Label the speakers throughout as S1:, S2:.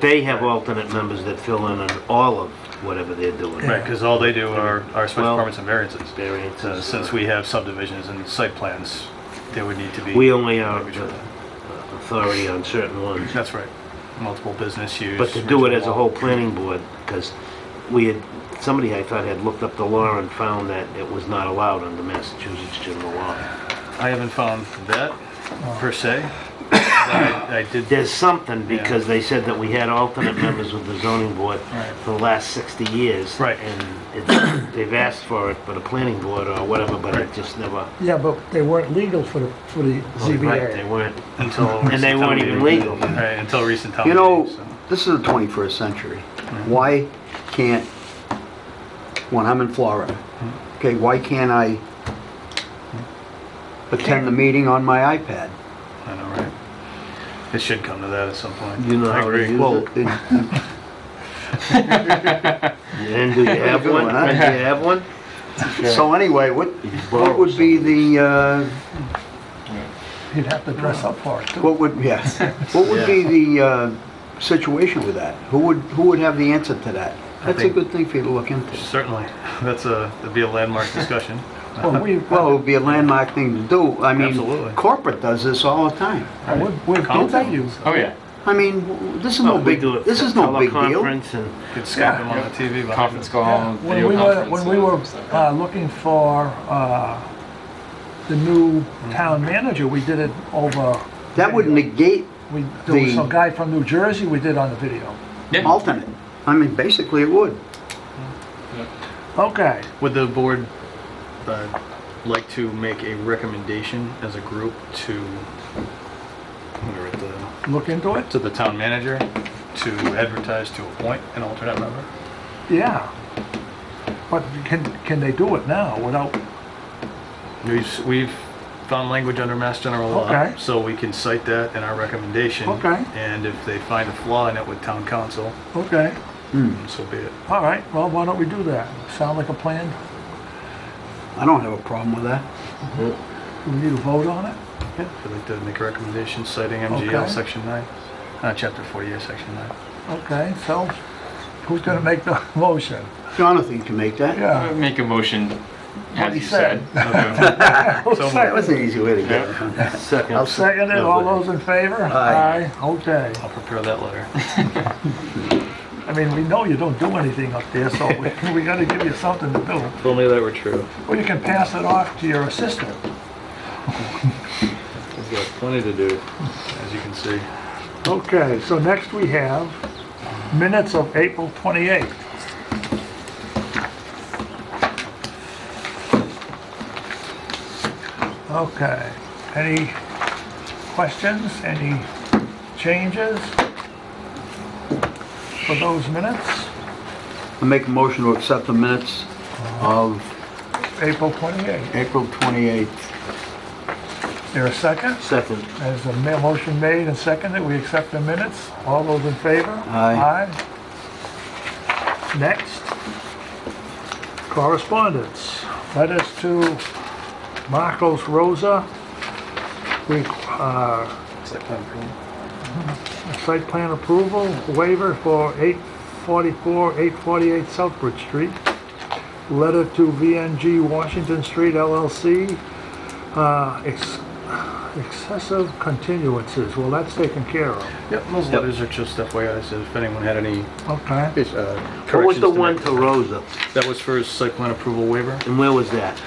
S1: They have alternate members that fill in on all of whatever they're doing.
S2: Right, because all they do are, are special
S1: Well,
S2: permits and variances.
S1: variances,
S2: So Since we have subdivisions and site plans, there would need to be.
S1: We only are
S2: Make sure
S1: the uh,
S2: that-
S1: authority on certain ones.
S2: That's right, multiple business use.
S1: But to do it as a
S2: regional-
S1: whole planning board, because we had, somebody I thought had looked up the law and found that it was not allowed under Massachusetts general law.
S2: I haven't found that per se. but I I did,
S1: There's something, because they said that we had alternate members with the zoning board
S2: Right.
S1: for the last 60 years.
S2: Right.
S1: And it's- they've asked for it, for the planning board or whatever, but it
S2: Right.
S1: just never,
S3: Yeah, but they weren't legal for the, for the
S1: Oh, right, they
S3: ZBA.
S1: weren't.
S2: until.
S1: And they
S2: recent
S1: weren't
S2: town
S1: even
S2: meeting.
S1: legal.
S2: Right, until recent town.
S4: You know,
S2: meeting, so-
S4: this is the 21st century. Why can't, when I'm in Florida, okay, why can't I attend the meeting on my iPad?
S2: I know, right? It should come to that at some point.
S1: You know
S2: I
S1: how to
S2: agree.
S1: use
S4: Well,
S1: it?
S4: it-
S1: And do you have
S4: Good
S1: one? Do
S4: one,
S1: you
S4: huh?
S1: have one?
S4: so anyway, what, what would be the, uh,
S3: You'd have to dress up for it, too.
S4: what would, yes, what would be the uh, situation with that? Who would, who would have the answer to that? That's a
S2: think-
S4: good thing for you to look into.
S2: Certainly, that's a, that'd be a landmark discussion.
S3: Well, we,
S4: Well, it would be a landmark thing to do. I
S2: Absolutely.
S4: mean, corporate does this all the time.
S3: we've, we've done that
S2: uh,
S3: use.
S5: Oh, yeah.
S4: I mean, w- this is no
S1: Well, Oh, we
S4: big,
S1: do it
S4: this
S1: for
S4: is no big deal.
S1: teleconference and-
S2: Could Skype them on the TV. behind
S5: Conference
S2: us.
S5: call,
S3: When
S5: video
S3: we were,
S5: conference.
S3: when we were
S5: and stuff.
S3: uh, looking for uh, the new town manager, we did it over,
S4: That would negate
S3: we, there was
S4: The-
S3: some guy from New Jersey we did on the video.
S5: Yeah,
S4: alternate. I mean, basically it would.
S3: Okay,
S2: Would the board uh, like to make a recommendation as a group to, whatever, the-
S3: look into it?
S2: to the town manager to advertise to appoint an alternate member?
S3: Yeah. But can, can they do it now without,
S2: We've, s- we've found language under Mass General
S3: Okay.
S2: Law, so we can cite that in our recommendation.
S3: Okay.
S2: And if they find a flaw in it with town council,
S3: okay,
S2: so be it.
S3: all right, well, why don't we do that? Sound like a plan?
S4: I don't have a problem with that.
S3: Do we need a vote on it?
S2: Yeah, I'd like to make a recommendation citing MGL
S3: Okay.
S2: Section 9, uh, Chapter 48, Section 9.
S3: Okay, so who's gonna make the motion?
S4: Jonathan can make that.
S5: I
S3: Yeah.
S5: would make a motion, as
S3: he
S5: you said.
S3: I'll
S4: That was
S3: second
S4: an easy way to get it. huh?
S1: Second.
S3: I'll second it, all those in favor?
S4: Aye.
S3: Okay,
S2: I'll prepare that letter.
S3: I mean, we know you don't do anything up there, so we, we gotta give you something to do.
S2: If only that were true.
S3: Or you can pass it off to your assistant.
S2: He's got plenty to do. As you can see.
S3: Okay, so next we have minutes of April 28th. Okay, any questions, any changes for those minutes?
S4: I make a motion to accept the minutes of
S3: April 28th,
S4: April 28th.
S3: Is there a second?
S1: Second.
S3: There's a ma- motion made and seconded, we accept the minutes. All those in favor?
S4: Aye.
S3: Aye. Next, correspondence. Letters to Marcos Rosa, we, uh, Mm-hmm. site plan approval waiver for 844, 848 Southbridge Street. Letter to VNG Washington Street LLC, uh, ex- excessive continuances, well, that's taken care of.
S2: Yep, those letters are just FYI, so if anyone had any
S3: Okay.
S2: uh,
S1: What was
S2: corrections
S1: the
S2: to
S1: one
S2: make.
S1: to Rosa?
S2: That was for his site plan approval waiver,
S1: And where was that?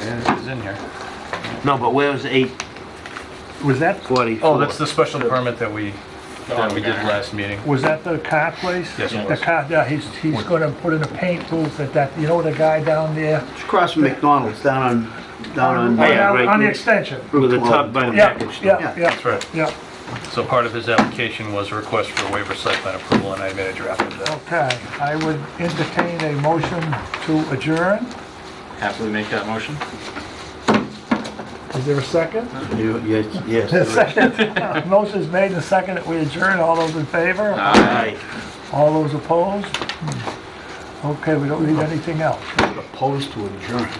S2: and it was in here.
S1: No, but where was eight
S3: Was that,
S1: forty-four?
S2: Oh, that's the special permit that we, that we did last meeting.
S3: was that the car place?
S2: Yes, it
S3: The
S2: was.
S3: car, yeah, he's, he's gonna put in a paint booth at that, you know the guy down there?
S4: It's across from McDonald's down on, down
S1: Aye.
S4: on,
S1: yeah, right
S3: On the
S1: here.
S3: extension.
S1: With the top by the
S3: Yeah,
S1: package store.
S3: yeah,
S4: Yeah,
S3: yeah,
S2: That's right.
S3: yeah,
S2: So part of his application was a request for a waiver site plan approval, and I made a draft of that.
S3: okay. I would entertain a motion to adjourn.
S5: Happily make that motion.
S3: Is there a second?
S4: You- yes, yes.
S3: The second, motion's made and seconded, we adjourn, all those in favor?
S1: Aye.
S3: All those opposed? Hmm. Okay, we don't need anything else.
S4: Opposed to adjourn.